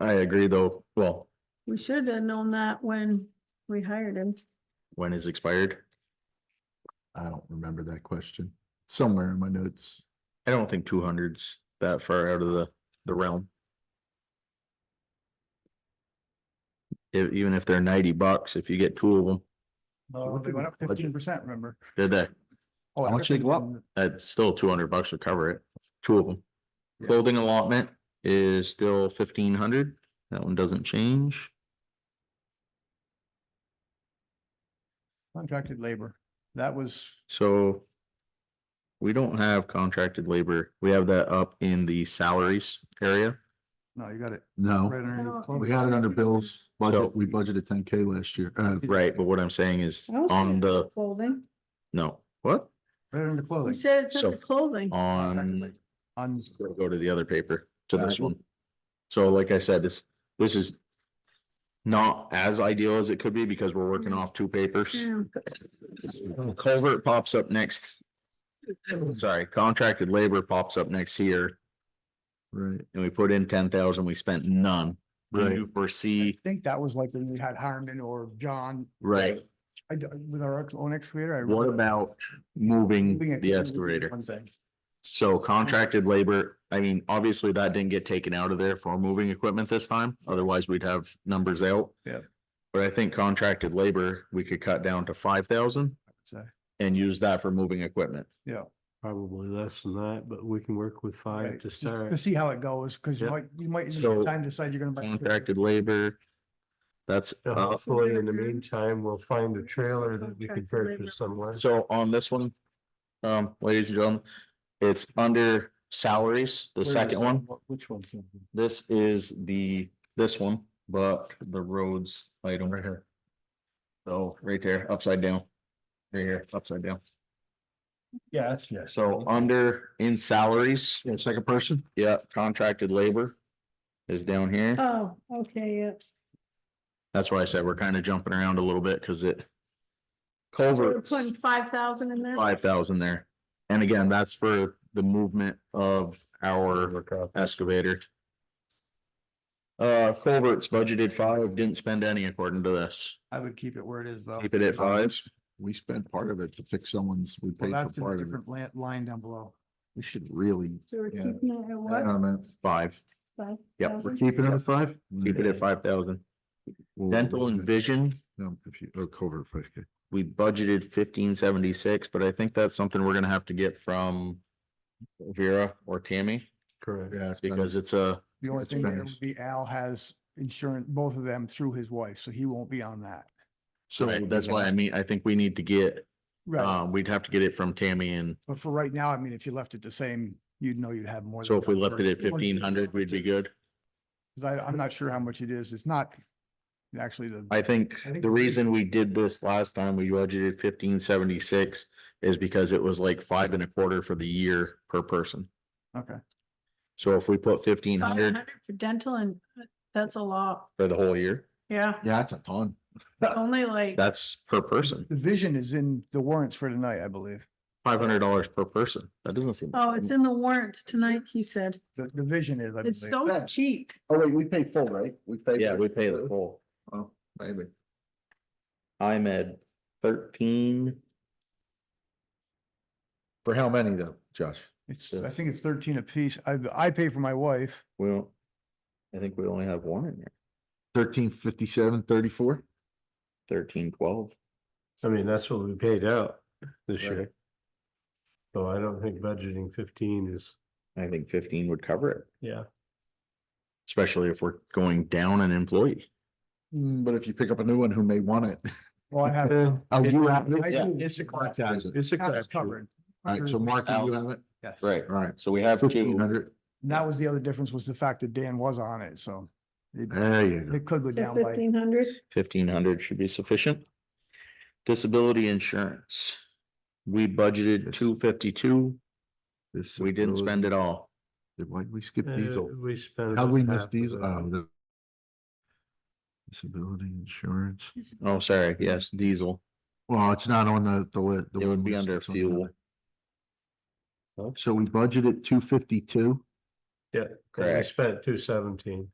I agree though, well, We should have known that when we hired him. when is expired? I don't remember that question. Somewhere in my notes. I don't think two hundreds that far out of the, the realm. E- even if they're ninety bucks, if you get two of them, No, What they did went we up budget? fifteen percent, remember? did that, Oh, How much did it go up? that's still two hundred bucks to cover it, two of them. Yeah. Clothing allotment is still fifteen hundred, that one doesn't change. Contracted labor, that was, So we don't have contracted labor. We have that up in the salaries area. no, you got it. No, right underneath No. clothing. we had it under bills. So- Budget, we budgeted ten K last year. Uh, Right, but what I'm saying is I don't see on it. the, Clothing. no, what? Right under We clothing. said it's under So- clothing. On, On, go to the other paper, to this Alright. one. So like I said, this, this is not as ideal as it could be because we're working off two papers. Yeah. Culvert pops up next. Sorry, contracted labor pops up next here right. and we put in ten thousand, we spent none. Do you I foresee, think that was like when we had Harmon or John, right? I, d- with our own excavator. I What remember about moving moving it the to excavator? One thing. So contracted labor, I mean, obviously that didn't get taken out of there for moving equipment this time, otherwise we'd have numbers out. Yeah. But I think contracted labor, we could cut down to five thousand So, and use that for moving equipment. Yeah. Probably less than that, but we can work with right. five to To start. see how it goes, because you Yeah. might, you might, in So, time decide you're gonna. buy a trailer. Contracted labor. That's, So uh, Hopefully, in the meantime, we'll find a It's a trailer that we can contract labor. purchase somewhere. so on this one, um, ladies and gentlemen, it's under salaries, the Where is second that? one. What- Which one's? that? This is the, this one, but the roads item right here. So right there, upside down. Right here, upside down. Yeah, that's yes. So under in salaries, Yeah, second person? yeah, contracted labor is down here. Oh, okay, yeah. That's why I said we're kind of jumping around a little bit because it. So We're Culverts, putting five thousand in there. five thousand there. And again, that's for the movement of our excavator. Uh, culverts budgeted five, didn't spend any according to this. I would keep it where it is, though. Keep it at five. We spent part of it to fix someone's, we Well, paid that's for in a part of it. different la- line down below. We should really. So we're Yeah. keeping it at Hang on what? a minute. Five. Five Yep, thousand? Keeping it at five? keep it at five thousand. Whoa, Dental and okay. vision, No, I'm confused. Oh, covert five K. we budgeted fifteen seventy-six, but I think that's something we're gonna have to get from. Vera or Tammy, Correct. Yeah. it's better. because it's a, The only It's thing there Spanish. would be Al has insurance, both of them through his wife, so he won't be on that. so that's why I mean, I think we need to get, Right, um, we'd have to get it from Tammy and. but for right now, I mean, if you left it the same, you'd know you'd have more. So than if we one left it at person. fifteen hundred, we'd be good. Cause I, I'm not sure how much it is. It's not actually the, I think I think the we- reason we did this last time, we budgeted fifteen seventy-six is because it was like five and a quarter for the year per person. okay, So if we put fifteen Five hundred hundred for dental and uh, that's a lot. for the whole year, Yeah, Yeah, that's a ton. only like, that's per person, the vision is in the warrants for tonight, I believe. five hundred dollars per person. That doesn't seem. oh, it's in the warrants tonight, he said. The, the vision is, I It's believe. so cheap. Oh, wait, we pay full, right? We pay. Yeah, we pay the full. Oh, maybe. I'm at thirteen. For how many though, Josh? It's, I think it's thirteen apiece. I, I pay for my wife. Well, I think we only have one in there, Thirteen fifty-seven, thirty-four? thirteen, twelve. I mean, that's what we paid out this Right. year. So I don't think budgeting fifteen is, I think fifteen would cover it, yeah. especially if we're going down an employee. Mm, but if you pick up a new one who may want it. Well, I have. Eh, Oh, you have I it? do. It's a crap shoot. Is it? It's a Half crap is shoot. covered. All right, so Mark, you have it? Yes. Right. All right. So we have Fifteen two, hundred. And that was the other difference was the fact that Dan was on it, so it, There you go. it could go down by. Fifteen hundred? fifteen hundred should be sufficient. Disability insurance. We budgeted two fifty-two, This we didn't is- spend it all. Why'd we skip Uh, diesel? We spent. How about we half miss of diesel? that. Oh, the. Disability insurance. Oh, sorry, yes, diesel. Well, it's not on the, the list. It would be under fuel. So we budgeted two fifty-two. Yeah, 'cause we Correct. spent two seventeen.